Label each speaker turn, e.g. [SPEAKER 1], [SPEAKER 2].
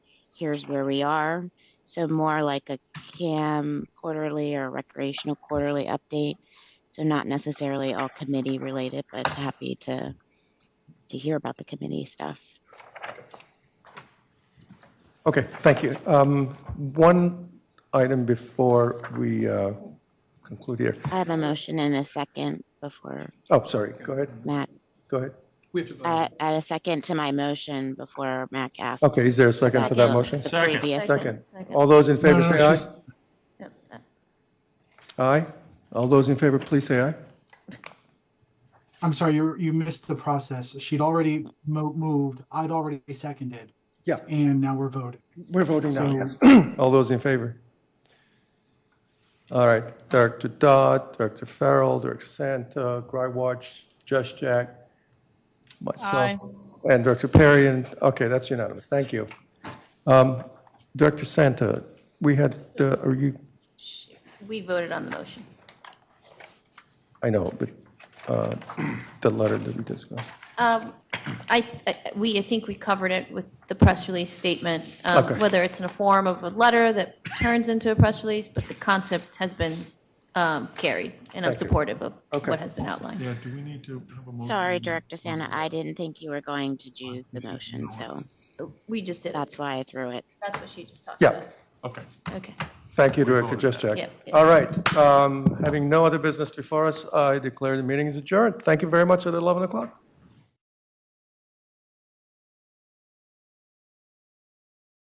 [SPEAKER 1] here's where we are. So more like a CAM quarterly or recreational quarterly update. So not necessarily all committee related, but happy to to hear about the committee stuff.
[SPEAKER 2] Okay, thank you. Um, One item before we uh, conclude here.
[SPEAKER 1] I have a motion and a second before
[SPEAKER 2] Oh, sorry, go ahead,
[SPEAKER 1] Matt.
[SPEAKER 2] go ahead.
[SPEAKER 3] We have to vote.
[SPEAKER 1] I I had a second to my motion before Mac asked.
[SPEAKER 2] Okay, is there a second to that
[SPEAKER 1] Second.
[SPEAKER 2] motion?
[SPEAKER 1] The
[SPEAKER 3] Second.
[SPEAKER 1] previous one.
[SPEAKER 2] Second. All those in favor say aye. Aye. All those in favor, please say aye.
[SPEAKER 4] I'm sorry, you you missed the process. She'd already mo- moved. I'd already seconded,
[SPEAKER 2] Yeah,
[SPEAKER 4] and now we're voting.
[SPEAKER 2] we're voting now,
[SPEAKER 4] So-
[SPEAKER 2] yes. All those in favor? All right, Director Dodd, Director Farrell, Director Santa, Grywatch, Just Jack, myself, and Director Perry, and, okay, that's unanimous, thank you. Um, Director Santa, we had, uh, are you,
[SPEAKER 5] We voted on the motion.
[SPEAKER 2] I know, but uh, the letter that we discussed.
[SPEAKER 5] Um, I, I- we, I think we covered it with the press release statement, um,
[SPEAKER 2] Okay.
[SPEAKER 5] whether it's in a form of a letter that turns into a press release, but the concept has been um, carried, and I'm
[SPEAKER 2] Thank you.
[SPEAKER 5] supportive of
[SPEAKER 2] Okay.
[SPEAKER 5] what has been outlined.
[SPEAKER 3] Yeah, do we need to have a motion?
[SPEAKER 1] Sorry, Director Santa, I didn't think you were going to do the motion, so
[SPEAKER 5] We just did,
[SPEAKER 1] that's
[SPEAKER 5] that's
[SPEAKER 1] why I threw it.
[SPEAKER 5] what she just talked
[SPEAKER 2] Yeah.
[SPEAKER 5] about.
[SPEAKER 3] Okay.
[SPEAKER 5] Okay.
[SPEAKER 2] Thank you, Director Just Jack.
[SPEAKER 5] Yeah, yeah.
[SPEAKER 2] All right, um, having no other business before us, I declare the meeting is adjourned. Thank you very much at 11 o'clock.